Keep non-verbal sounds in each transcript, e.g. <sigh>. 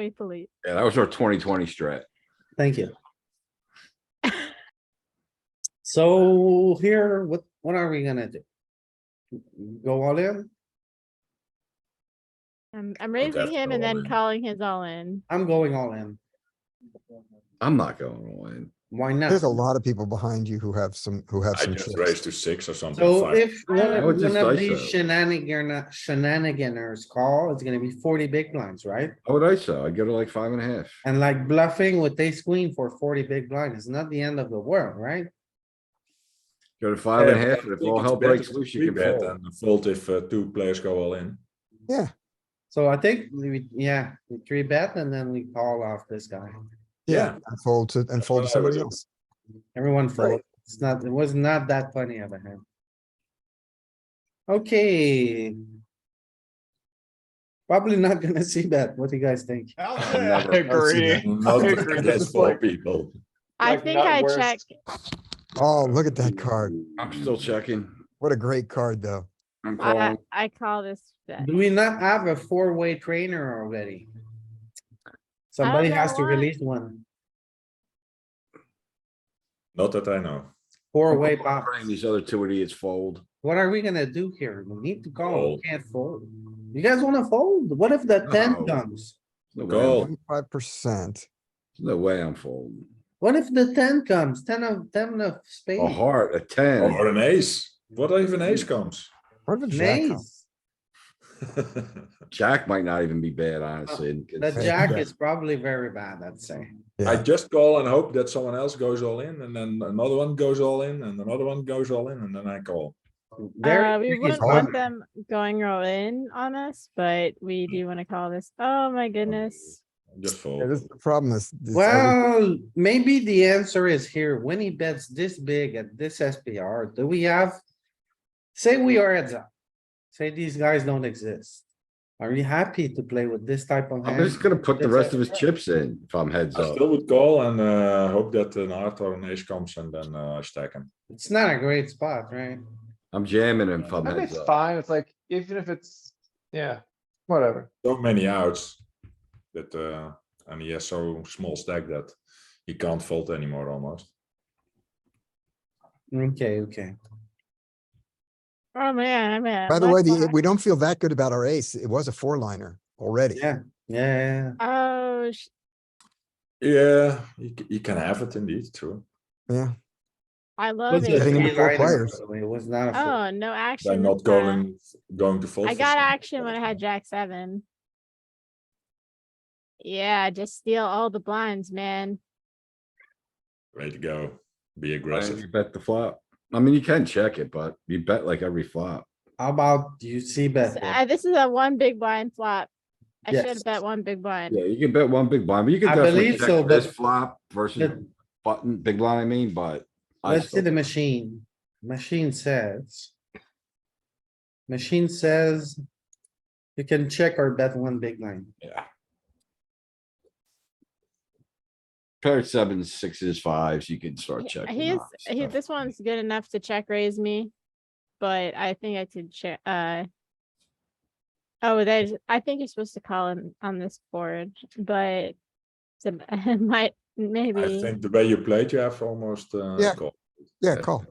Italy. Yeah, that was our twenty twenty strat. Thank you. So here, what, what are we gonna do? Go all in? I'm, I'm raising that's him and all then in. calling his all in. I'm going all in. I'm not going all in. Why not? There's a lot of people behind you who have some, who have I some just chips. raised to six or something. So five. if one I of- would just one of dice these that. shenanigan, shenaniganers call, it's gonna be forty big blinds, right? How would I say? I'd go to like five and a half. And like bluffing with ace queen for forty big blind is not the end of the world, right? Go to five and a Yeah, half, but I and if think all it's hell better breaks to loose, you can three-bet fold. than Fold if uh, two players go all in. Yeah, So I think, we yeah, we three bet and then we call off this guy. yeah, Yeah. and fold to, and fold to what I would somebody do. else. Everyone fold. It's not, it was not that funny of a hand. Okay. Probably not <laughs> gonna see that. What do you guys think? <laughs> I never- agree. Not I agree. against It's four like- people. I Like, think not I worse. check, Oh, look at that card. I'm still checking. What a great card, though. I'm I, calling. I call this bet. Do we not have a four-way trainer already? Somebody has know to why. release one, Not that I know. four-way I'm pop. praying These other two idiots fold. What are we gonna do here? We need to call, Fold. we can't fold. You guys wanna fold? What if the No. ten comes? No way Go. I'm- Twenty-five percent. No way I'm folding. What if the ten comes? Ten of, ten of A spades, heart, a ten. Or an ace. What if an ace comes? <laughs> What if a jack comes? Nice. Jack might not even be bad, honestly. and The it's- jack is probably very bad, I'd say. I Yeah, just call and hope that someone else goes all in and then another one goes all in and another one goes all in and then I call. Very Uh, we tricky wouldn't call. want spot. them going all in on us, but we do want to call this. Oh my goodness. Just fold. Yeah, this is the problem is. is every- Well, maybe the answer is here. When he bets this big at this SPR, do we have? Say we are heads up. Say these guys don't exist. Are you happy to play with this type of I'm just hand? gonna put the It's rest a- of his chips in if I'm heads I up. still would call and uh, hope that an heart or an ace comes and then uh, I stack him. It's not a great spot, right? I'm jamming him if I'm I think heads it's up. fine. It's like, even if it's, yeah, whatever. So many outs that, uh, and he has so small stack that he can't fold anymore almost. Okay, okay. Oh man, I'm at. By the way, left the, behind. we don't feel that good about our ace. It was a four-liner already. Yeah, yeah. Oh, sh- Yeah, he, c- he can have it indeed, true. Yeah, I love Was a Getting it. into four three-liner, by players. the way, It was not. a four. Oh, no I'm action. not this time. going, going to fold. I for got some- action when I had jack seven. Yeah, just steal all the blinds, man. Way to go, be And aggressive. You bet the flop. I mean, you can check it, but you bet like every flop. How about you see bet? So, here? uh, This is a one big blind flop. I should Yes. have bet one big blind. Yeah, you can bet one big blind, but you can I definitely believe so, check but- this flop versus Let- button, big blind, I mean, but. I Let's see still- the machine. Machine says. Machine says. You can check or bet one big line. Yeah. Pair of sevens, sixes, fives, you can start He- checking. He's, off he, stuff. this one's good enough to check raise me, but I think I could check, uh. Oh, there's, I think you're supposed to call him on this board, but <laughs> some, might, I maybe. think the way you played, you have almost, uh, Yeah. call. yeah, call.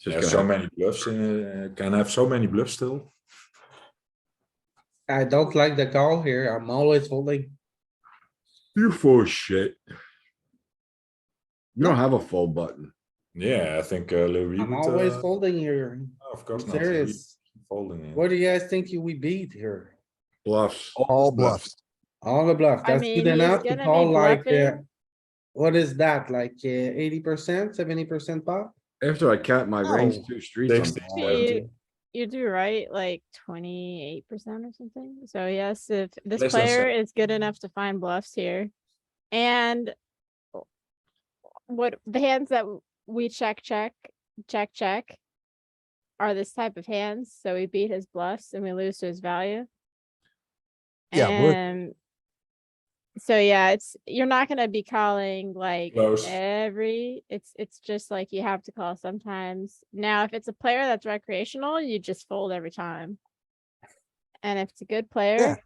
Just There's gonna so have- many bluffs, in, uh, can have so many bluffs still. I don't like the call here. I'm always holding. You full of shit. You don't have a full button. Yeah, I think uh, Louis I'm would, always uh, folding here. no, Of course not. Louis Serious. Folding in. What do you guys think you we beat here? Bluffs. All bluffs. All the bluff. I That's mean, good he's enough to gonna be call like, uh, bluffing. what is that? Like uh, eighty percent, seventy percent pot? After I cap my Oh. range two streets. Sixty. I'm So Yeah, all in. You you do right, like twenty-eight percent or something. So yes, if this Less than player is good enough to find bluffs here. And w- what the hands that w- we check, check, check, check are this type of hands. So we beat his bluffs and we lose to his value. Yeah, we're- And so yeah, it's, you're not gonna be calling like Close. every, it's, it's just like you have to call sometimes. Now, if it's a player that's recreational, you just fold every time. And if it's a good player,